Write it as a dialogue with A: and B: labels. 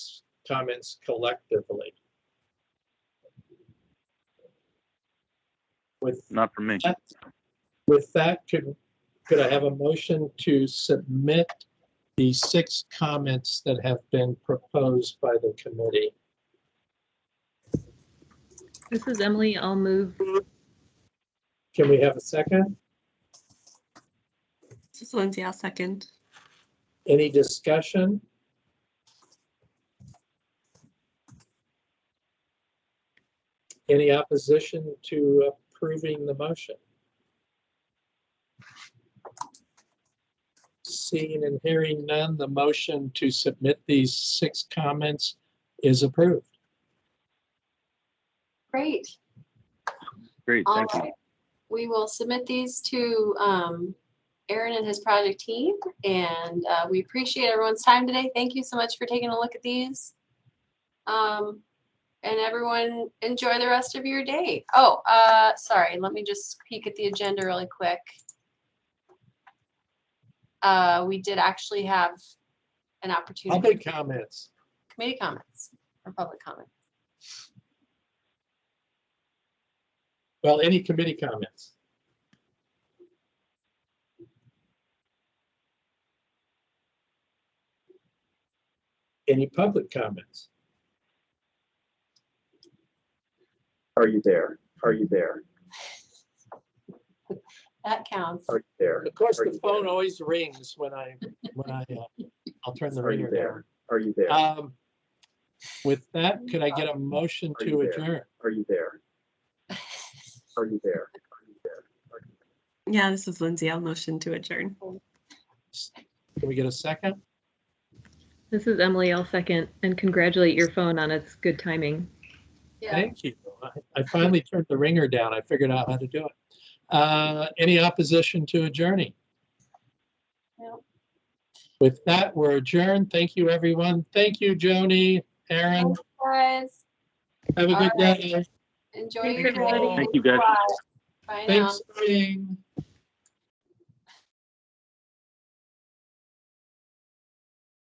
A: comments collectively? With
B: Not for me.
A: that, with that, could, could I have a motion to submit the six comments that have been proposed by the committee?
C: This is Emily. I'll move.
A: Can we have a second?
D: This is Lindsay, I'll second.
A: Any discussion? Any opposition to approving the motion? Seeing and hearing none, the motion to submit these six comments is approved.
E: Great.
B: Great,
E: All
B: thank you.
E: right. We will submit these to um, Aaron and his project team, and uh, we appreciate everyone's time today. Thank you so much for taking a look at these. Um, And everyone, enjoy the rest of your day. Oh, uh, sorry, let me just peek at the agenda really quick. Uh, We did actually have an opportunity,
A: Public comments.
E: for committee comments or public comment.
A: Well, any committee comments? Any public comments?
F: Are you there? Are you there?
E: That counts.
F: Are you there?
A: Of course,
F: Are
A: the
F: you
A: phone
F: there?
A: always rings when I, when I, uh, I'll turn the
F: Are you
A: ringer down.
F: there? Are you there?
A: Um, With that, could I get a motion
F: Are
A: to
F: you there?
A: adjourn?
F: Are you there? Are you there? Are you there? Are you there?
D: Yeah, this is Lindsay. I'll motion to adjourn.
A: Can we get a second?
C: This is Emily. I'll second and congratulate your phone on its good timing.
E: Yeah.
A: Thank you. I- I finally turned the ringer down. I figured out how to do it. Uh, Any opposition to adjourning?
E: No.
A: With that, we're adjourned. Thank you, everyone. Thank you, Joni, Aaron.
E: Thanks, Guys,
A: Have a good
E: All right.
A: day.
E: enjoy
C: Thanks,
E: your
C: everybody.
E: day.
B: Thank you, guys.
E: Bye now.
A: Thanks, Jane.